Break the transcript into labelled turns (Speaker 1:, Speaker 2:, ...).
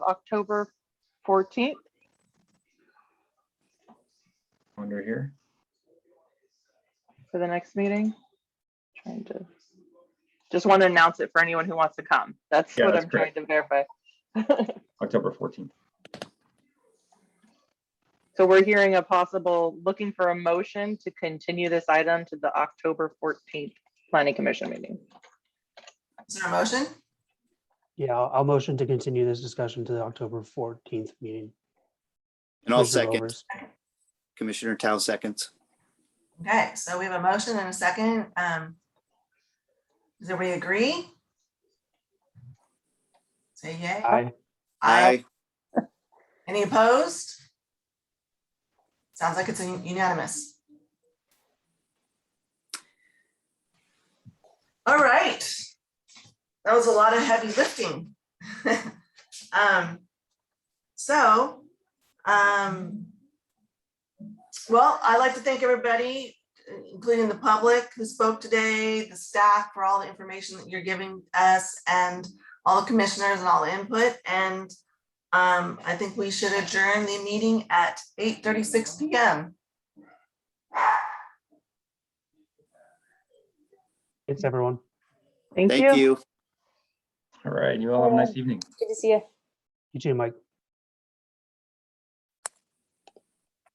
Speaker 1: October 14th.
Speaker 2: Under here.
Speaker 1: for the next meeting? Trying to, just want to announce it for anyone who wants to come. That's
Speaker 2: Yeah,
Speaker 1: what
Speaker 2: that's
Speaker 1: I'm trying to verify.
Speaker 2: October 14th.
Speaker 1: So we're hearing a possible, looking for a motion to continue this item to the October 14th Planning Commission meeting.
Speaker 3: Is there a motion?
Speaker 4: Yeah, I'll I'll motion to continue this discussion to the October fourteenth meeting.
Speaker 5: And I'll
Speaker 4: Commissioner
Speaker 5: second,
Speaker 4: Overs.
Speaker 5: Commissioner Tao seconds.
Speaker 3: Okay, so we have a motion and a second. Um, Does everybody agree? Say yay.
Speaker 4: Aye,
Speaker 5: Aye.
Speaker 3: Any opposed? Sounds like it's unanimous. All right. That was a lot of heavy lifting. Um, so, um, well, I'd like to thank everybody, including the public who spoke today, the staff for all the information that you're giving us and all the commissioners and all the input and um, I think we should adjourn the meeting at eight thirty-six PM.
Speaker 4: it's everyone.
Speaker 1: Thank you.
Speaker 5: Thank you.
Speaker 2: All right. You all have a nice evening.
Speaker 6: Good to see you.
Speaker 4: You too, Mike.